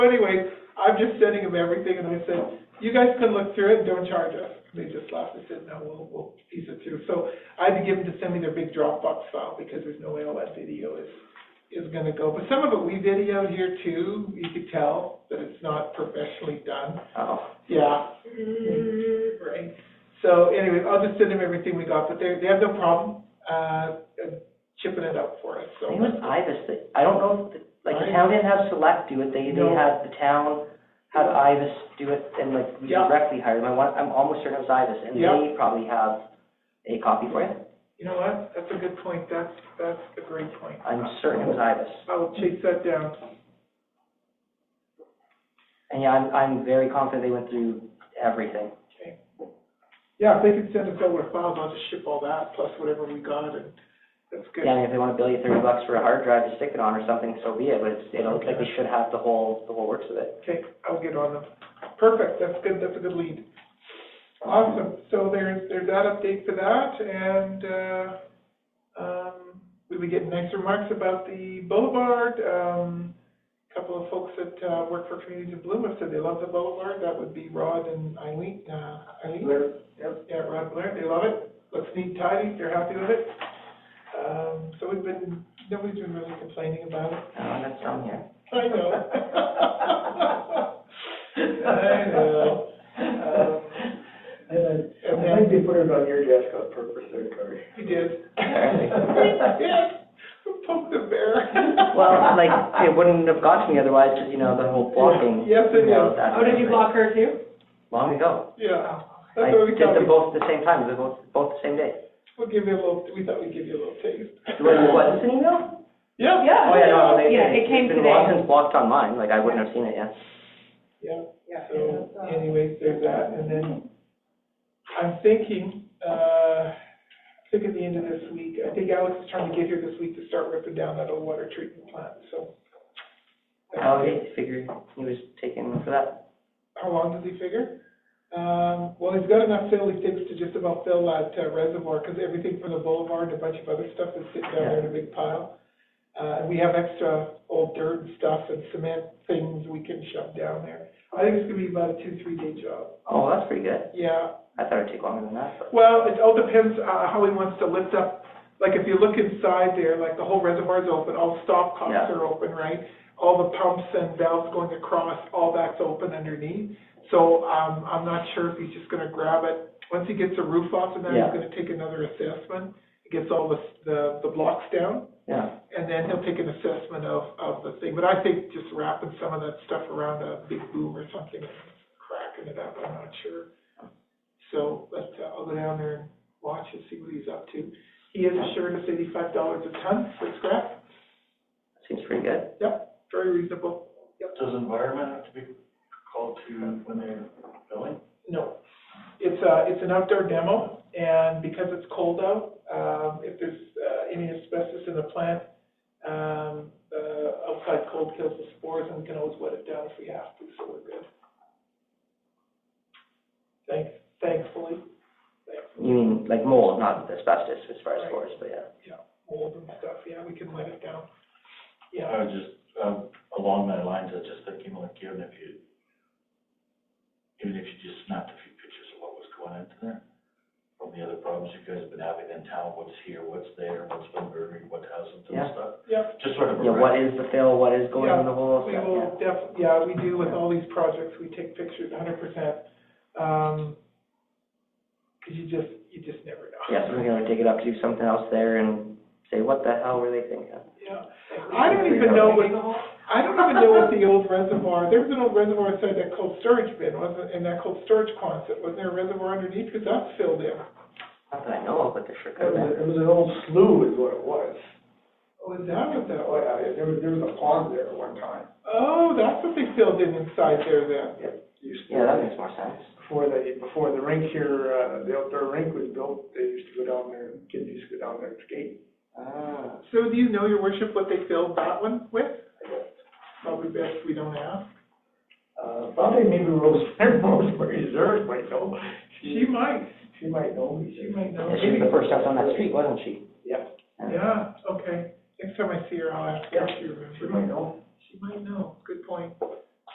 So anyway, I'm just sending them everything, and I said, you guys can look through it, and don't charge us. And They just laughed and said, no, we'll, we'll piece it through. So I had to give them to send me their big Dropbox file, because there's no way all that video is, is gonna go. But some of it we videoed here too, you could tell that it's not professionally done. Oh. Yeah. Right. So anyway, I'll just send them everything we got, but they, they have no problem, uh, chipping it up for us, I so. think it was Ibis, that- I don't know, if the- like, the town didn't have Select do it, they, they No. had, the town had Ibis do it, and like, we Yeah. directly hired them, I want, I'm almost certain it was Ibis, and Yeah. they probably have a copy for you, You know what? That's a good point. That's, that's a great point. I'm certain it was Ibis. I will chase that down. And yeah, I'm, I'm very confident they went through everything. Okay. Yeah, if they can send us over the files, I'll just ship all that plus whatever we got and that's good. Yeah, I mean, if they wanna bill you thirty bucks for a hard drive to stick it on or something, so be it, but it's, you know, like, they should have the whole, the whole works of it. Okay, I'll get on them. Perfect. That's good. That's a good lead. Awesome. So there's, there's that update for that and, uh, um, we would get nice remarks about the boulevard. Um, a couple of folks that, uh, work for Communities in Bloom have said they love the boulevard. That would be Rod and Eileen, uh, Eileen. Yeah, Rod Blair, they love it, looks neat, tidy, they're happy with it. Um, so we've been, nobody's been really complaining about it. Uh, that's from here. I know. I know. Um, And I and I then, think they put it on your desk on purpose there, Cory. he did. Apparently. Yes, poke the bear. Well, like, it wouldn't have got to me otherwise, cause you know, the whole blocking. Yes, it you know, is. that- Oh, did you block her too? Oh, Long ago. Yeah, I that's what we did thought, them we- both at the same time, they were both, both the same day. we'll give you a little, we thought we'd give you a little taste. What, what, is it an email? Yeah. Yeah. Oh, yeah, no, they, Yeah, it's it came been long today. since blocked on mine, like, I wouldn't have seen it yet. Yeah, Yeah, so that's, uh, anyways, there's that, and then I'm thinking, uh, I think at the end of this week, I think Alex is trying to get here this week to start ripping down that old water treatment plant, so. Oh, yeah, figured he was taken for that. How long does he figure? Um, well, he's got enough fill, he thinks to just about fill that uh, reservoir, because everything from the boulevard and a bunch of other stuff is sitting down there in a big pile. Uh, and we have extra old dirt and stuff and cement things we can shove down there. I think it's gonna be about a two, three day job. Oh, that's pretty good. Yeah, I thought it'd take longer than that, but. Well, it all depends, uh, how he wants to lift up, like, if you look inside there, like, the whole reservoir's open, all the stop cocks Yeah. are open, right? All the pumps and valves going across, all that's open underneath, so, um, I'm not sure if he's just gonna grab it. Once he gets the roof off and that, he's Yeah. gonna take another assessment, he gets all the, the, the blocks down, Yeah, and then he'll take an assessment of, of the thing, but I think just wrapping some of that stuff around a big boom or something, and cracking it up, I'm not sure. So, but uh, I'll go down there and watch and see what he's up to. He has assured us eighty-five dollars a ton for scrap, seems pretty good. very reasonable. Does environment have to be called to when they're billing? No, it's a, it's an outdoor demo, and because it's cold out, um, if there's, uh, any asbestos in the plant, um, uh, outside cold kills the spores, and we can always wet it down if we have to, so we're good. Thanks, thankfully, You mean, like mold, not asbestos as far as spores, but yeah. mold and stuff, yeah, we can let it down. Yeah, I was just, um, along that lines, I was just thinking like, even if you, even if you just snapped a few pictures of what was going into there, from the other problems you guys have been having in town, what's here, what's there, what's been buried, what hasn't, and Yeah. stuff. yeah, Just sort of a. Yeah, what is the fill, what is going Yeah, in the hole, We stuff, yeah. will def, yeah, we do with all these projects, we take pictures hundred percent. Um 'cause cause you just, you just never know. Yeah, so we're gonna dig it up, do something else there and say, what the hell were they thinking? Yeah. I don't even know what, I don't even know what the old reservoir, there was an old reservoir inside that cold storage bin, wasn't, in that cold storage closet, wasn't there a reservoir underneath, cause that's filled in. Not that I know of, but there sure could have been. it was an old slough is what it was. Oh, is that what that Oh, was? yeah, there was, there was a pond there at one time. Oh, that's what they filled in inside there then. Used to- Yeah, that makes more sense. Before they, before the rink here, uh, the outdoor rink was built, they used to go down there, kids used to go down there and skate. Ah, So do you know, your worship, what they filled that one with? Probably best we don't ask. Uh, probably maybe Rose, Rosemary Zers might know. She might, She might know. she might know. yeah, she was the first house on that street, wasn't she? Yeah, Yeah, okay. Next time I see her, I'll ask her if she remembers. she might know. She might know, good point.